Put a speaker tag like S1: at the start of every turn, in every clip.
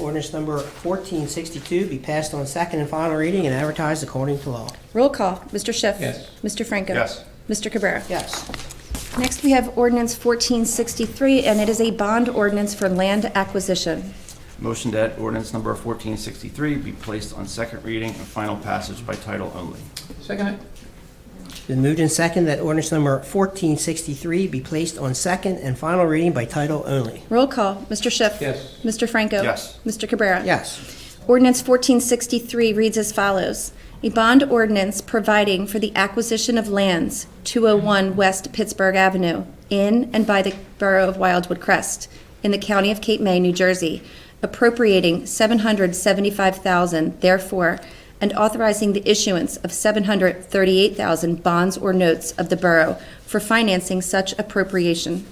S1: ordinance number 1462 be passed on second and final reading and advertised according to law.
S2: Roll call, Mr. Schiff.
S3: Yes.
S2: Mr. Franco.
S4: Yes.
S2: Mr. Cabrera.
S1: Yes.
S2: Next, we have ordinance 1463, and it is a bond ordinance for land acquisition.
S4: Motion that ordinance number 1463 be placed on second reading and final passage by title only.
S3: Second it?
S1: Been moved and second that ordinance number 1463 be placed on second and final reading by title only.
S2: Roll call, Mr. Schiff.
S3: Yes.
S2: Mr. Franco.
S4: Yes.
S2: Mr. Cabrera.
S1: Yes.
S2: Ordinance 1463 reads as follows. A bond ordinance providing for the acquisition of lands, 201 West Pittsburgh Avenue, in and by the Borough of Wildwood Crest, in the County of Cape May, New Jersey, appropriating 775000 therefore, and authorizing the issuance of 738000 bonds or notes of the borough for financing such appropriation.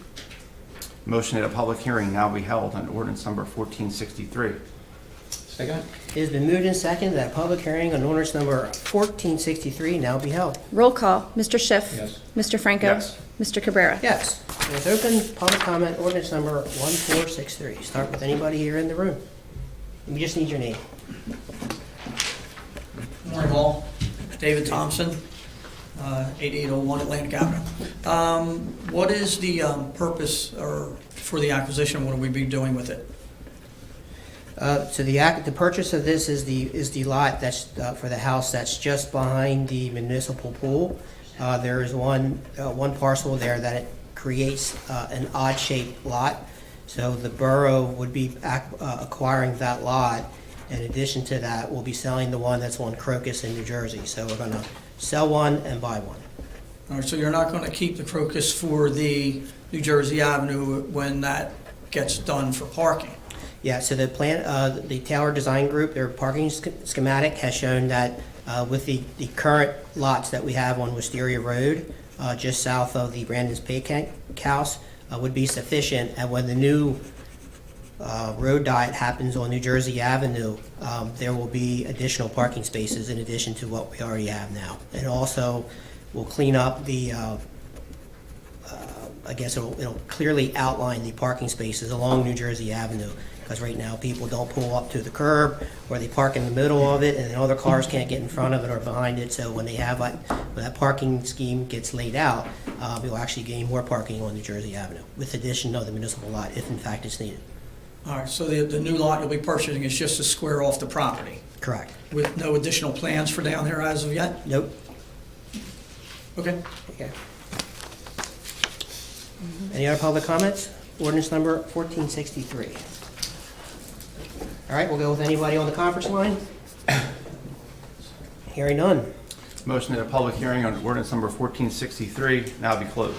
S4: Motion that a public hearing now be held on ordinance number 1463.
S3: Second it?
S1: It has been moved and second that a public hearing on ordinance number 1463 now be held.
S2: Roll call, Mr. Schiff.
S3: Yes.
S2: Mr. Franco.
S4: Yes.
S2: Mr. Cabrera.
S1: Yes. It is open, public comment, ordinance number 1463. Start with anybody here in the room. We just need your name.
S5: Morning, all. David Thompson, uh, 8801 Atlantic Avenue. Um, What is the um, purpose or for the acquisition? What will we be doing with it?
S1: Uh, So the act, the purchase of this is the, is the lot that's, uh, for the house that's just behind the municipal pool. Uh, There is one, uh, one parcel there that it creates uh, an odd-shaped lot. So the borough would be ac- uh, acquiring that lot. In addition to that, we'll be selling the one that's on Crocus in New Jersey. So we're going to sell one and buy one.
S5: All right, so you're not going to keep the crocus for the New Jersey Avenue when that gets done for parking?
S1: Yeah, so the plan, uh, the Taylor Design Group, their parking sch- schematic has shown that uh, with the, the current lots that we have on Wisteria Road, uh, just south of the Brandon's Pig House, uh, would be sufficient. And when the new uh, road diet happens on New Jersey Avenue, um, there will be additional parking spaces in addition to what we already have now. And also, we'll clean up the, uh, I guess it'll, it'll clearly outline the parking spaces along New Jersey Avenue, because right now people don't pull up to the curb, or they park in the middle of it, and then other cars can't get in front of it or behind it, so when they have, like, when that parking scheme gets laid out, uh, we'll actually gain more parking on New Jersey Avenue, with addition of the municipal lot, if in fact it's needed.
S5: All right, so the the new lot you'll be purchasing is just to square off the property
S1: Correct.
S5: with no additional plans for down there as of yet?
S1: Nope.
S5: Okay.
S1: Okay. Any other public comments? Ordinance number 1463. All right, we'll go with anybody on the conference line. Hearing none.
S4: Motion that a public hearing on ordinance number 1463 now be closed.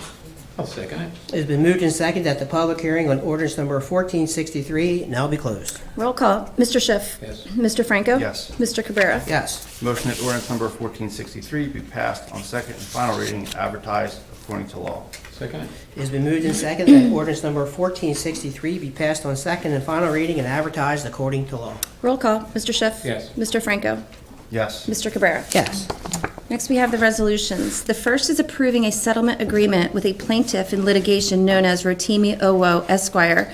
S3: I'll second it.
S1: It's been moved and seconded that the public hearing on ordinance number 1463 now be closed.
S2: Roll call, Mr. Schiff.
S3: Yes.
S2: Mr. Franco.
S4: Yes.
S2: Mr. Cabrera.
S1: Yes.
S4: Motion that ordinance number 1463 be passed on second and final reading and advertised according to law.
S3: Second it?
S1: It's been moved and seconded that ordinance number 1463 be passed on second and final reading and advertised according to law.
S2: Roll call, Mr. Schiff.
S3: Yes.
S2: Mr. Franco.
S4: Yes.
S2: Mr. Cabrera.
S1: Yes.
S2: Next, we have the resolutions. The first is approving a settlement agreement with a plaintiff in litigation known as Rotimi Owo Esquire,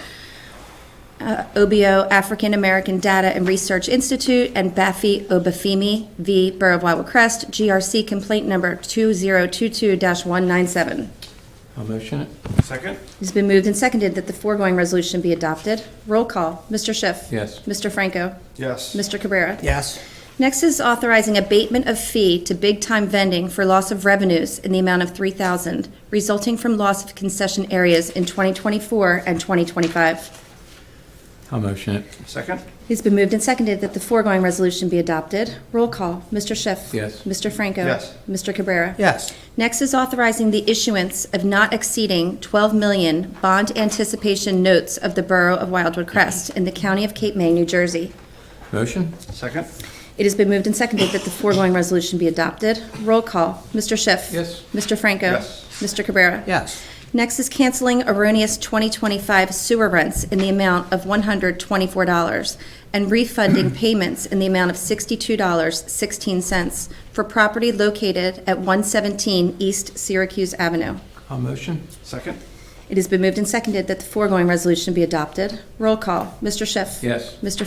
S2: uh, OBO African American Data and Research Institute, and Baffy Obafemi v. Borough of Wildwood Crest, GRC complaint number 2022-197.
S3: I'll motion it.
S4: Second?
S2: It's been moved and seconded that the foregoing resolution be adopted. Roll call, Mr. Schiff.
S3: Yes.
S2: Mr. Franco.
S4: Yes.
S2: Mr. Cabrera.
S1: Yes.
S2: Next is authorizing abatement of fee to Big Time Vending for loss of revenues in the amount of 3000 resulting from loss of concession areas in 2024 and 2025.
S3: I'll motion it.
S4: Second?
S2: It's been moved and seconded that the foregoing resolution be adopted. Roll call, Mr. Schiff.
S3: Yes.
S2: Mr. Franco.
S4: Yes.
S2: Mr. Cabrera.
S1: Yes.
S2: Next is authorizing the issuance of not exceeding 12 million bond anticipation notes of the Borough of Wildwood Crest in the County of Cape May, New Jersey.
S3: Motion?
S4: Second?
S2: It has been moved and seconded that the foregoing resolution be adopted. Roll call, Mr. Schiff.
S3: Yes.
S2: Mr. Franco.
S4: Yes.
S2: Mr. Cabrera.
S1: Yes.
S2: Next is canceling erroneous 2025 sewer rents in the amount of $124 and refunding payments in the amount of $62.16 for property located at 117 East Syracuse Avenue.
S3: I'll motion.
S4: Second?
S2: It has been moved and seconded that the foregoing resolution be adopted. Roll call, Mr. Schiff.
S3: Yes.
S2: Mr.